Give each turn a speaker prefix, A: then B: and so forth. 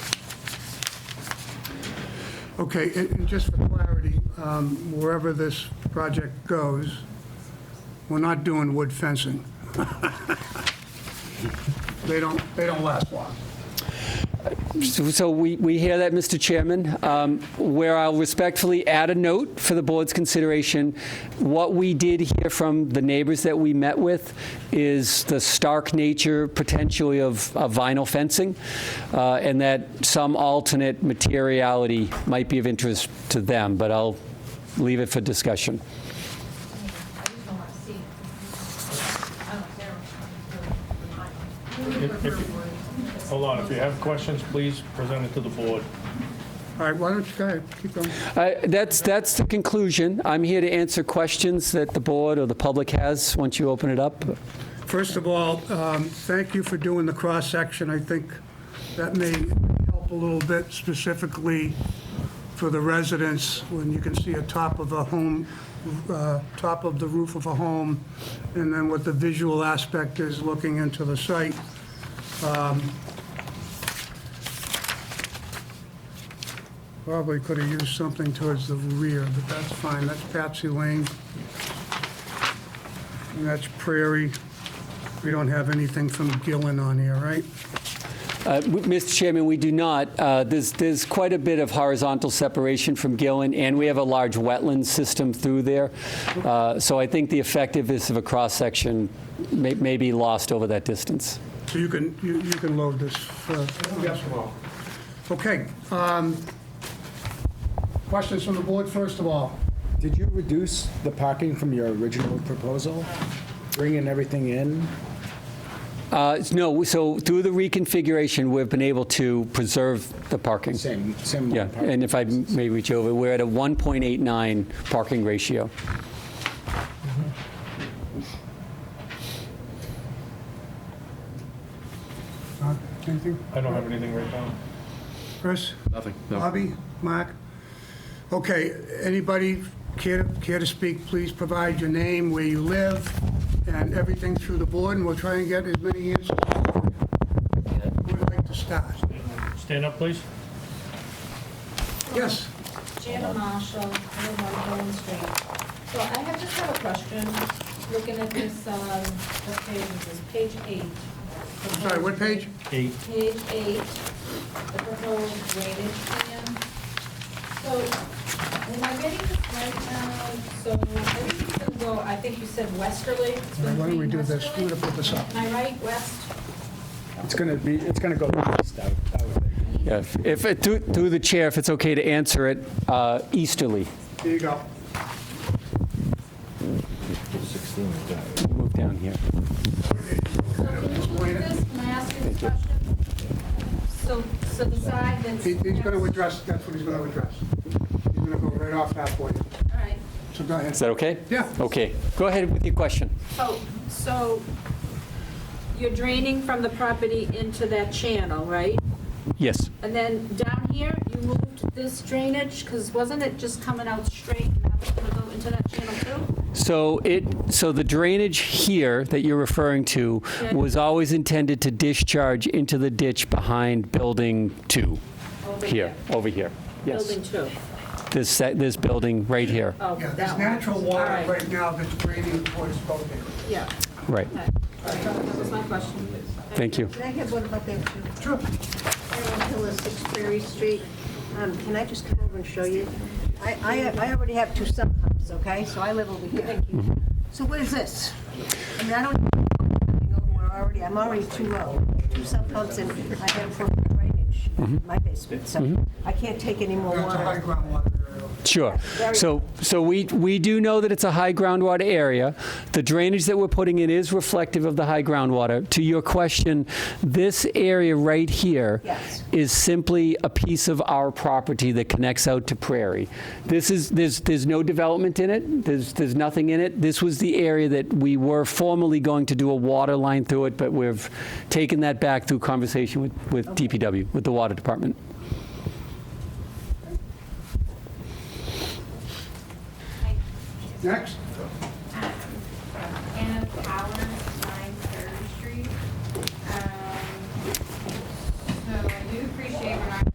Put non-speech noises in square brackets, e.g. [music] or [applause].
A: Okay, and and just for clarity, um, wherever this project goes, we're not doing wood fencing. [laughs] They don't, they don't last long.
B: So we, we hear that, Mr. Chairman, um, where I'll respectfully add a note for the board's consideration. What we did hear from the neighbors that we met with is the stark nature potentially of of vinyl fencing, uh, and that some alternate materiality might be of interest to them, but I'll leave it for discussion.
C: I just don't want to see it. I don't care.
D: If- if- Hold on, if you have questions, please present it to the board.
A: All right, why don't you, go ahead, keep going.
B: I- Uh, That's, that's the conclusion. I'm here to answer questions that the board or the public has, once you open it up.
A: First of all, um, thank you for doing the cross-section. I think that may help a little bit specifically for the residents, when you can see a top of a home, uh, top of the roof of a home, and then what the visual aspect is looking into the site. Um, Probably could have used something towards the rear, but that's fine. That's Patsy Lane. And that's Prairie. We don't have anything from Gillen on here, right?
B: Uh, w- Mr. Chairman, we do not. Uh, There's, there's quite a bit of horizontal separation from Gillen, and we have a large wetland system through there. Uh, So I think the effectiveness of a cross-section may, may be lost over that distance.
A: So you can, you you can load this. Yes, well. Okay. um, Questions from the board, first of all?
E: Did you reduce the parking from your original proposal, bringing everything in?
B: Uh, No, so through the reconfiguration, we've been able to preserve the parking.
E: Same, same.
B: Yeah, and if I may reach over, we're at a 1.89 parking ratio.
A: Uh, Anything?
D: I don't have anything right now.
A: Chris?
F: Nothing, no.
A: Bobby? Mark? Okay, anybody care, care to speak, please provide your name, where you live, and everything through the board, and we'll try and get as many answers. Who would like to start?
D: Stand up, please.
A: Yes?
C: Jana Marshall, I live on Holland Street. So I have just have a question, looking at this, um, what page is this, page eight.
A: Sorry, what page?
D: Eight.
C: Page eight, the proposed drainage plan. So, am I getting this right now? So everything's gonna go, I think you said westerly, it's
A: Why
C: gonna
A: don't we
C: be
A: do this? We're
C: westerly?
A: gonna put this up.
C: Am I right, west?
E: It's gonna be, it's gonna go east out, out
B: Yeah, if- If, it- through through the chair, if it's okay to answer it, uh, easterly.
A: Here you go.
B: Move down here.
A: Wait a-
C: So, so the side that's.
A: He- He's going to address, that's what he's going to address. He's going to go right off halfway.
C: All right.
A: So go ahead.
B: Is that okay?
A: Yeah.
B: Okay, go ahead with your question.
C: Oh, so you're draining from the property into that channel, right?
B: Yes.
C: And then down here, you moved this drainage, because wasn't it just coming out straight and that was gonna go into that channel too?
B: So it, so the drainage here that you're referring to
C: Yeah.
B: was always intended to discharge into the ditch behind Building 2,
C: Over
B: here, over here. Yes,
C: Building two.
B: this, se- this building right here,
C: Oh,
A: Yeah,
C: that
A: there's
C: one.
A: natural
C: All
A: water right now that's draining towards both areas.
C: Yeah,
B: right.
C: okay. All right, that was my question.
B: Thank you.
G: Can I have one about that? Sure. Erin Hillis, 6 Prairie Street. Um, Can I just come over and show you? I, I I already have two sump pumps, okay? So I live over here. Thank you. So what is this? I mean, I don't, I'm over already, I'm already too low. Two sump pumps and I have poor drainage in my basement, so I can't take any more
A: It's a high
G: water.
A: groundwater area.
B: Sure.
G: Very-
B: So, so we, we do know that it's a high groundwater area. The drainage that we're putting in is reflective of the high groundwater. To your question, this area right here
G: Yes.
B: is simply a piece of our property that connects out to Prairie. This is, there's, there's no development in it, there's, there's nothing in it. This was the area that we were formerly going to do a water line through it, but we've taken that back through conversation with, with DPW, with the water department.
A: Next?